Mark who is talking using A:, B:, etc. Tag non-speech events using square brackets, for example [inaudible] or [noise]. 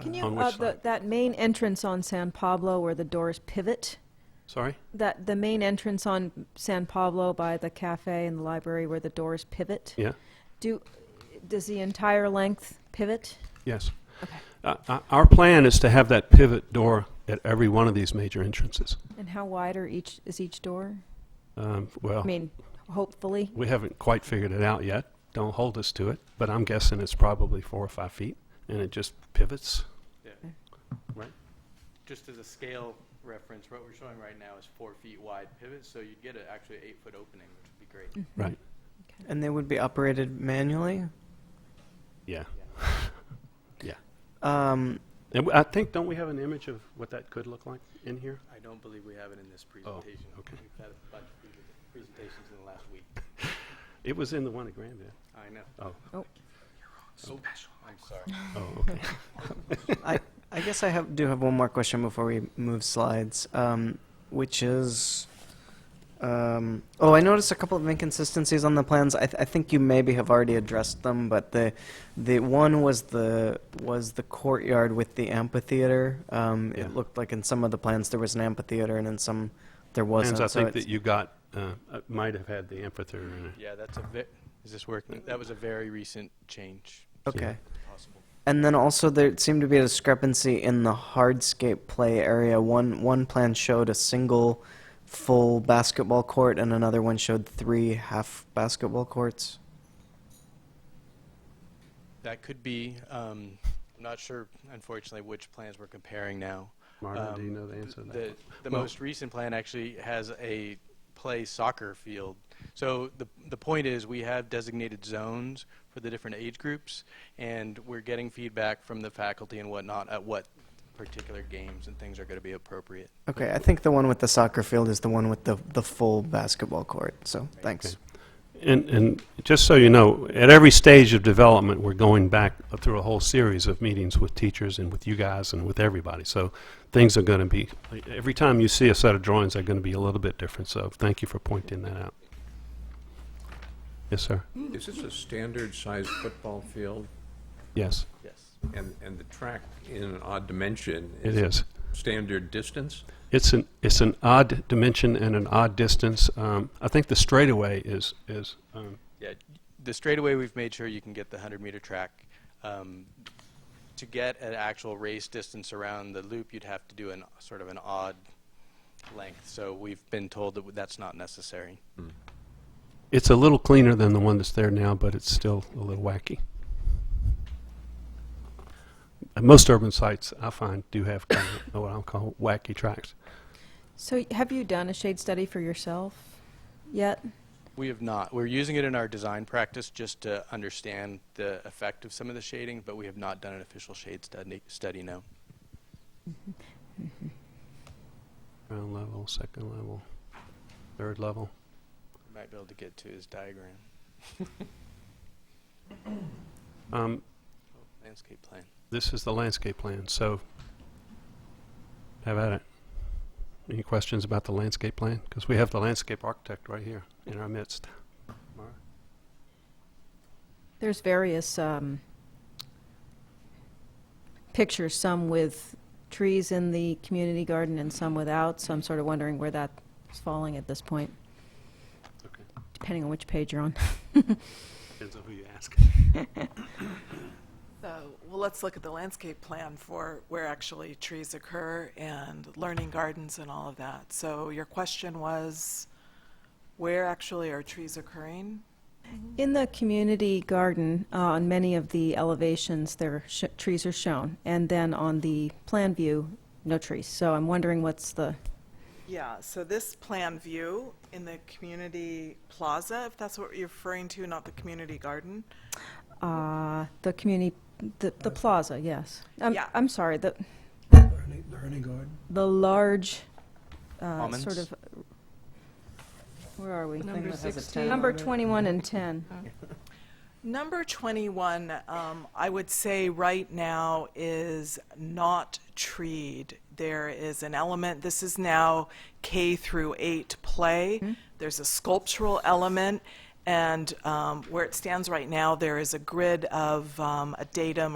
A: Can you,
B: On
A: uh,
B: which
A: the,
B: side?
A: that main entrance on San Pablo where the doors pivot,
B: Sorry?
A: that, the main entrance on San Pablo by the cafe and the library where the doors pivot,
B: Yeah?
A: do, does the entire length pivot?
B: Yes. Uh, uh, Our plan is to have that pivot door at every one of these major entrances.
A: And how wide are each, is each door?
B: Um, Well,
A: I mean, hopefully.
B: we haven't quite figured it out yet. Don't hold us to it, but I'm guessing it's probably four or five feet, and it just pivots.
C: Just as a scale reference, what we're showing right now is four feet wide pivot, so you'd get a, actually an eight-foot opening, which would be great.
B: Right.
D: And they would be operated manually?
B: Yeah. [laughs]
D: Um,
B: And w- I think, don't we have an image of what that could look like in here?
C: I don't believe we have it in this presentation.
B: okay.
C: We've had a bunch of pre- presentations in the last week.
B: It was in the one at Grandview.
C: I know.
B: Oh.
A: Oh.
C: So special. I'm sorry.
B: Oh, okay. [laughs]
D: I, I guess I have, do have one more question before we move slides, um, which is, um, oh, I noticed a couple of inconsistencies on the plans. I, th- I think you maybe have already addressed them, but the, the one was the, was the courtyard with the amphitheater. Um,
B: Yeah.
D: It looked like in some of the plans there was an amphitheater and in some there wasn't.
B: Plans I
D: so
B: think
D: it's-
B: that you got, uh, uh, might have had the amphitheater in it.
C: Yeah, that's a ve- is this working? That was a very recent change.
D: Okay.
C: Possible.
D: And then also there seemed to be a discrepancy in the hardscape play area. One one plan showed a single full basketball court and another one showed three half basketball courts.
C: That could be, um, I'm not sure unfortunately which plans we're comparing now.
B: Marvin, do you
C: Um,
B: know the answer to that?
C: The, the
B: Well-
C: most recent plan actually has a play soccer field. So the, the point is, we have designated zones for the different age groups, and we're getting feedback from the faculty and whatnot at what particular games and things are going to be appropriate.
D: Okay, I think the one with the soccer field is the one with the the full basketball court. So thanks.
B: Okay. And, and just so you know, at every stage of development, we're going back through a whole series of meetings with teachers and with you guys and with everybody. So things are going to be, every time you see a set of drawings, they're going to be a little bit different. So thank you for pointing that out. Yes, sir.
E: Is this a standard-sized football field?
B: Yes,
C: Yes.
E: And, and the track in an odd dimension?
B: it is.
E: Standard distance?
B: It's an, it's an odd dimension and an odd distance. Um, I think the straightaway is, is, um,
C: Yeah, the straightaway we've made sure you can get the 100 meter track. Um, to get an actual race distance around the loop, you'd have to do an sort of an odd length. So we've been told that that's not necessary.
B: it's a little cleaner than the one that's there now, but it's still a little wacky. And Most urban sites, I find, do have kind of what I'll call wacky tracks.
A: So have you done a shade study for yourself yet?
C: We have not. We're using it in our design practice just to understand the effect of some of the shading, but we have not done an official shade study, study no.
B: Ground level, second level, third level.
C: We might be able to get to his diagram,
B: Um,
C: landscape plan.
B: this is the landscape plan, so have at it. Any questions about the landscape plan? Because we have the landscape architect right here in our midst.
A: There's various um, pictures, some with trees in the community garden and some without, so I'm sort of wondering where that's falling at this point,
B: Okay.
A: depending on which page you're on.
B: Depends on who you ask.
F: So, well, let's look at the landscape plan for where actually trees occur and learning gardens and all of that. So your question was, where actually are trees occurring?
A: In the community garden, uh, on many of the elevations, there are sh- trees are shown, and then on the plan view, no trees. So I'm wondering what's the,
F: Yeah, so this plan view in the community plaza, if that's what you're referring to, not the community garden.
A: uh, the community, the, the plaza, yes. I'm,
F: Yeah.
A: I'm sorry, the,
G: Learning, learning garden.
A: the large, uh,
C: Almonds?
A: sort of, where are we?
D: Number that has a 16.
A: Number 21 and 10.
F: Number 21, um, I would say right now is not treed. There is an element, this is now K through 8 play. There's a sculptural element, and um, where it stands right now, there is a grid of um, a datum